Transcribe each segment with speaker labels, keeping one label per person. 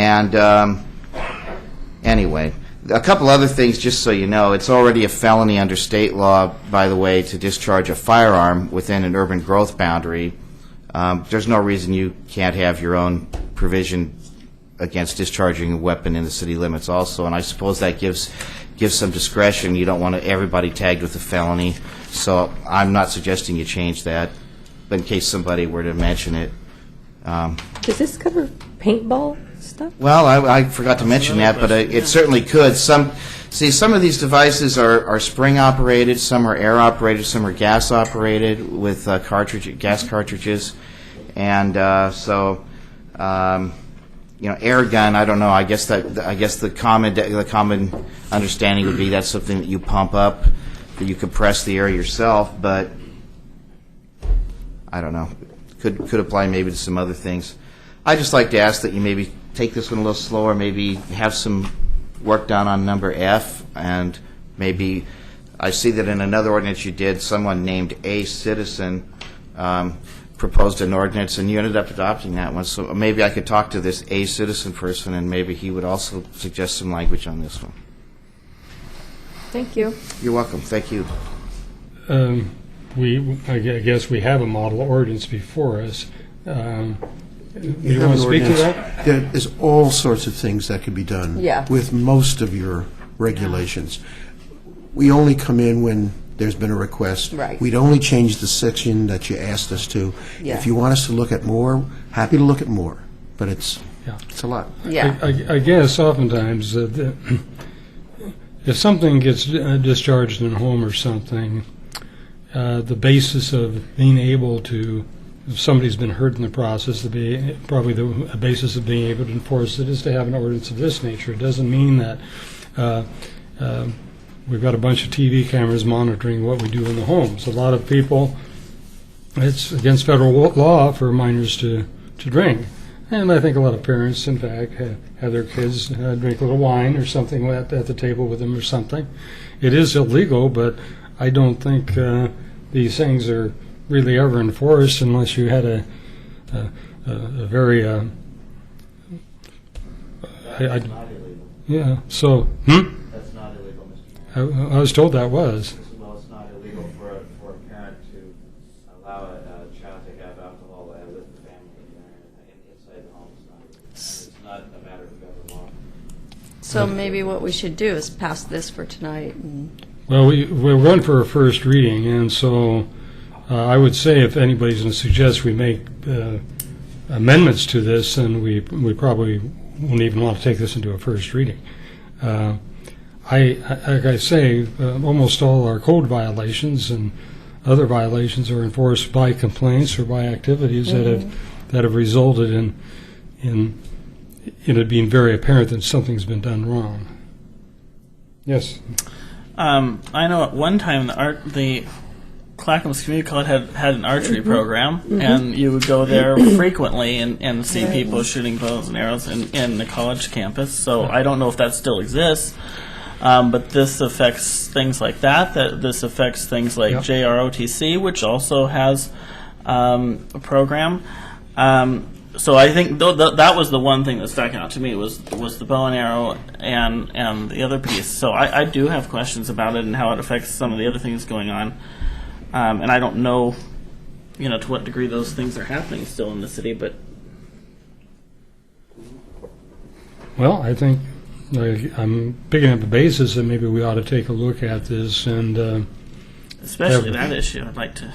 Speaker 1: And um, anyway, a couple other things, just so you know. It's already a felony under state law, by the way, to discharge a firearm within an urban growth boundary. Um, There's no reason you can't have your own provision against discharging a weapon in the city limits also, and I suppose that gives, gives some discretion. You don't want everybody tagged with a felony, so I'm not suggesting you change that, but in case somebody were to mention it.
Speaker 2: Does this cover paintball stuff?
Speaker 1: Well, I, I forgot to mention that, but uh, it certainly could. Some, see, some of these devices are, are spring-operated, some are air-operated, some are gas-operated with uh, cartridge, gas cartridges, and uh, so, um, you know, air gun, I don't know, I guess that, I guess the common, the common understanding would be that's something that you pump up, that you compress the air yourself, but I don't know, could, could apply maybe to some other things. i just like to ask that you maybe take this one a little slower, maybe have some work done on number F, and maybe, I see that in another ordinance you did, someone named a citizen um, proposed an ordinance, and you ended up adopting that one, so maybe I could talk to this a citizen person, and maybe he would also suggest some language on this one.
Speaker 2: Thank you.
Speaker 1: You're welcome, thank you.
Speaker 3: Um, We, I gue- I guess we have a model ordinance before us. Um, You want to speak to that?
Speaker 4: There is all sorts of things that could be done.
Speaker 2: Yeah.
Speaker 4: With most of your regulations. We only come in when there's been a request.
Speaker 2: Right.
Speaker 4: We'd only change the section that you asked us to.
Speaker 2: Yeah.
Speaker 4: If you want us to look at more, happy to look at more, but it's,
Speaker 3: Yeah.
Speaker 4: it's a lot.
Speaker 2: Yeah.
Speaker 3: I- uh, I I guess oftentimes that the- if something gets uh, discharged in a home or something, uh, the basis of being able to, if somebody's been hurt in the process, to be, probably the basis of being able to enforce it is to have an ordinance of this nature. It doesn't mean that uh, um, we've got a bunch of TV cameras monitoring what we do in the homes. A lot of people, it's against federal wa- law for minors to, to drink. And I think a lot of parents, in fact, have, have their kids uh, drink a little wine or something at, at the table with them or something. It is illegal, but I don't think uh, these things are really ever enforced unless you had a, a, a, a very. Uh, I, I, yeah, so. Hmm?
Speaker 1: That's not illegal, Mr.
Speaker 3: I, I was told that was.
Speaker 1: Well, it's not illegal for a, for a parent to allow a, child to have alcohol with the family inside the home. It's not, it's not a matter of federal law.
Speaker 5: So maybe what we should do is pass this for tonight and
Speaker 3: Well, we, we're going for a first reading, and so uh, I would say if anybody's going to suggest we make uh, amendments to this, then we, we probably won't even want to take this into a first reading. Uh, I, I- like I say, uh, almost all our code violations and other violations are enforced by complaints or by activities that have, that have resulted in, in, in it being very apparent that something's been done wrong. Yes?
Speaker 6: Um, I know at one time the art the Clackamas Community College had, had an archery program, and you would go there frequently and, and see people shooting bows and arrows in, in the college campus. So I don't know if that still exists, um, but this affects things like that. That this affects things like
Speaker 3: Yep.
Speaker 6: JROTC, which also has um, a program. Um, so I think th- th- that was the one thing that stuck out to me was was the bow and arrow and and the other piece. So I, I do have questions about it and how it affects some of the other things going on, um, and I don't know, you know, to what degree those things are happening still in the city. But
Speaker 3: Well, I think like, I'm picking up the basis that maybe we ought to take a look at this and uh,
Speaker 6: especially
Speaker 3: Yeah.
Speaker 6: that issue, I'd like to.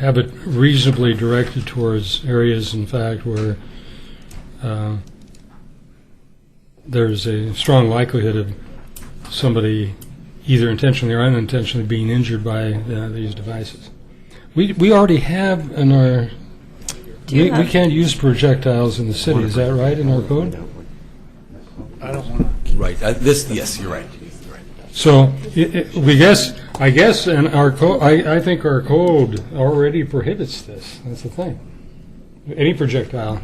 Speaker 3: have it reasonably directed towards areas, in fact, where uh, there's a strong likelihood of somebody either intentionally or unintentionally being injured by uh, these devices. We, we already have in our,
Speaker 5: do
Speaker 3: we,
Speaker 5: you
Speaker 3: we
Speaker 5: have,
Speaker 3: can't use projectiles in the city, is that right, in our code?
Speaker 7: Right, uh, this, yes, you're right. You're right.
Speaker 3: So, i i we guess, I guess, and our co, I, I think our code already prohibits this, that's the thing. Any projectile.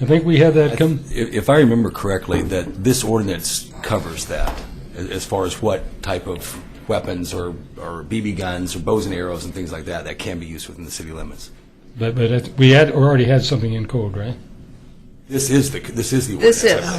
Speaker 3: I think we had that come,
Speaker 7: If if I remember correctly, that this ordinance covers that, a- as far as what type of weapons or or BB guns or bows and arrows and things like that that can be used within the city limits.
Speaker 3: but, but it- we had, already had something in code, right?
Speaker 7: This is the, this is the
Speaker 5: This
Speaker 7: ordinance.
Speaker 5: is.